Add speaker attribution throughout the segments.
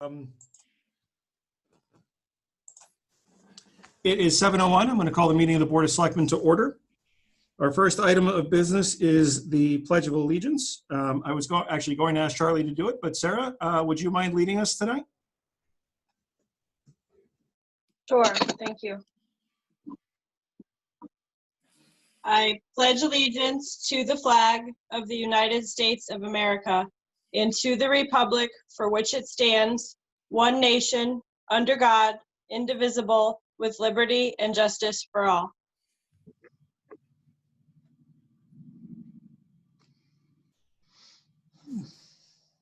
Speaker 1: Um, It is 7:01. I'm going to call the meeting of the Board of Selectmen to order. Our first item of business is the Pledge of Allegiance. Um, I was go- actually going to ask Charlie to do it, but Sarah, uh, would you mind leading us tonight?
Speaker 2: Sure, thank you. I pledge allegiance to the flag of the United States of America and to the republic for which it stands, one nation, under God, indivisible, with liberty and justice for all.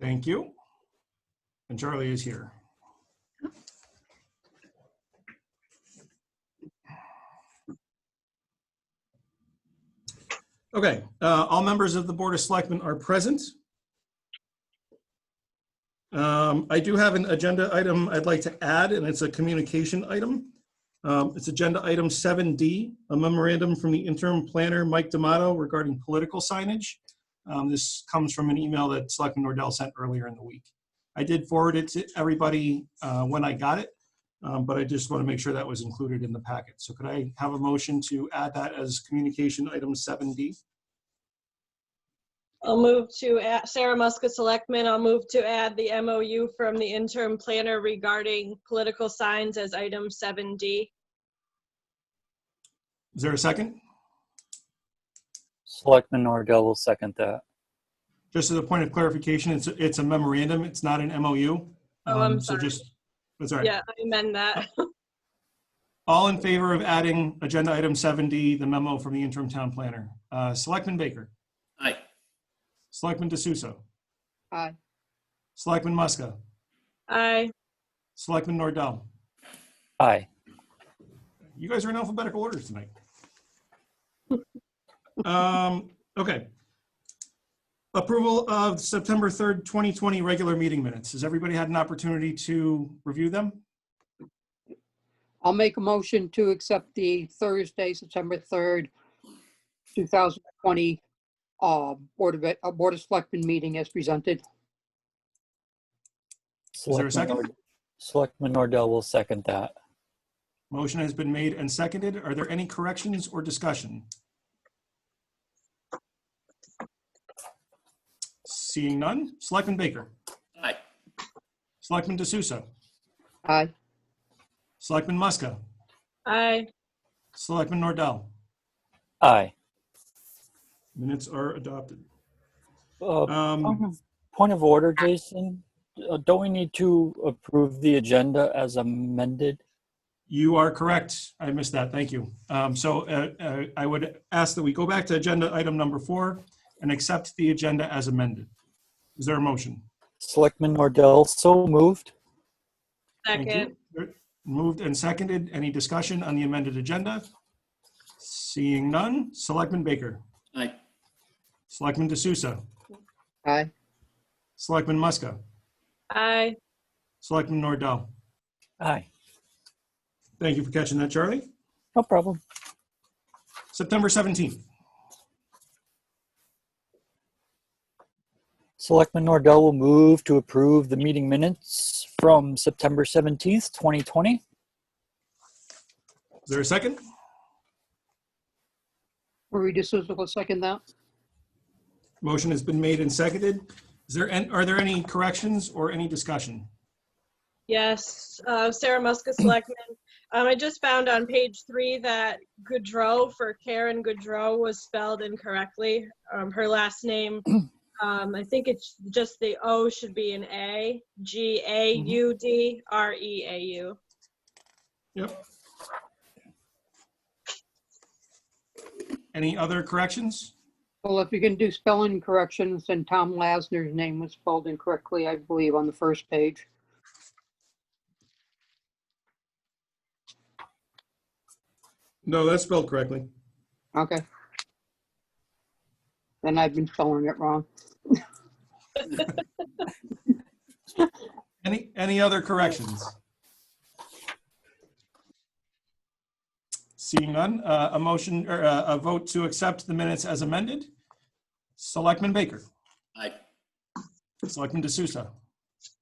Speaker 1: Thank you. And Charlie is here. Okay, uh, all members of the Board of Selectmen are present. Um, I do have an agenda item I'd like to add, and it's a communication item. Um, It's Agenda Item 7D, a memorandum from the interim planner, Mike D'Amato, regarding political signage. Um, This comes from an email that Selectman Nordell sent earlier in the week. I did forward it to everybody uh, when I got it, um, but I just want to make sure that was included in the packet. So could I have a motion to add that as communication item 7D?
Speaker 2: I'll move to, add- Sarah Muska, Selectman, I'll move to add the MOU from the interim planner regarding political signs as item 7D.
Speaker 1: Is there a second?
Speaker 3: Selectman Nordell will second that.
Speaker 1: Just as a point of clarification, it's, a- it's a memorandum, it's not an MOU.
Speaker 2: Oh, I'm
Speaker 1: Um, so
Speaker 2: sorry.
Speaker 1: just- That's all right.
Speaker 2: Yeah, I amend that.
Speaker 1: All in favor of adding agenda item 7D, the memo from the interim town planner? Uh, Selectman Baker?
Speaker 4: Aye.
Speaker 1: Selectman D'Souza?
Speaker 5: Aye.
Speaker 1: Selectman Muska?
Speaker 2: Aye.
Speaker 1: Selectman Nordell?
Speaker 3: Aye.
Speaker 1: You guys are in alphabetical order tonight. Um, okay. Approval of September 3rd, 2020 regular meeting minutes. Has everybody had an opportunity to review them?
Speaker 5: I'll make a motion to accept the Thursday, September 3rd, 2020 uh, Board of, Ed- uh, Board of Selectmen meeting as presented.
Speaker 1: Is there a second?
Speaker 3: Selectman Nord- Selectman Nordell will second that.
Speaker 1: Motion has been made and seconded. Are there any corrections or discussion? Seeing none. Selectman Baker.
Speaker 4: Aye.
Speaker 1: Selectman D'Souza.
Speaker 5: Aye.
Speaker 1: Selectman Muska.
Speaker 2: Aye,
Speaker 1: Selectman Nordell.
Speaker 3: Aye.
Speaker 1: Minutes are adopted.
Speaker 3: Uh,
Speaker 1: Um,
Speaker 3: Point of order, Jason. Uh, Don't we need to approve the agenda as amended?
Speaker 1: You are correct. I missed that. Thank you. Um, So uh, uh, I would ask that we go back to agenda item number four and accept the agenda as amended. Is there a motion?
Speaker 3: Selectman Nordell, so moved.
Speaker 1: Thank
Speaker 2: second.
Speaker 1: you. Moved and seconded. Any discussion on the amended agenda? Seeing none. Selectman Baker.
Speaker 4: Aye.
Speaker 1: Selectman D'Souza.
Speaker 5: Aye.
Speaker 1: Selectman Muska.
Speaker 2: Aye,
Speaker 1: Selectman Nordell.
Speaker 3: Aye.
Speaker 1: Thank you for catching that, Charlie.
Speaker 3: No problem.
Speaker 1: September 17th.
Speaker 3: Selectman Nordell will move to approve the meeting minutes from September 17th, 2020.
Speaker 1: Is there a second?
Speaker 5: Marie D'Souza will second that.
Speaker 1: Motion has been made and seconded. Is there, an- are there any corrections or any discussion?
Speaker 2: yes. Uh, Sarah Muska, Selectman. Um, I just found on page three that Goodrow for Karen Goodrow was spelled incorrectly. Um, her last name, um, I think it's just the O should be an A, G A U D R E A U.
Speaker 1: Yep. Any other corrections?
Speaker 5: Well, if you can do spelling corrections, then Tom Lasner's name was spelled incorrectly, I believe, on the first page.
Speaker 1: No, that's spelled correctly.
Speaker 5: Okay. Then I've been spelling it wrong.
Speaker 1: Any, any other corrections? Seeing none, uh, a motion or uh, a vote to accept the minutes as amended. Selectman Baker,
Speaker 4: Aye.
Speaker 1: Selectman D'Souza,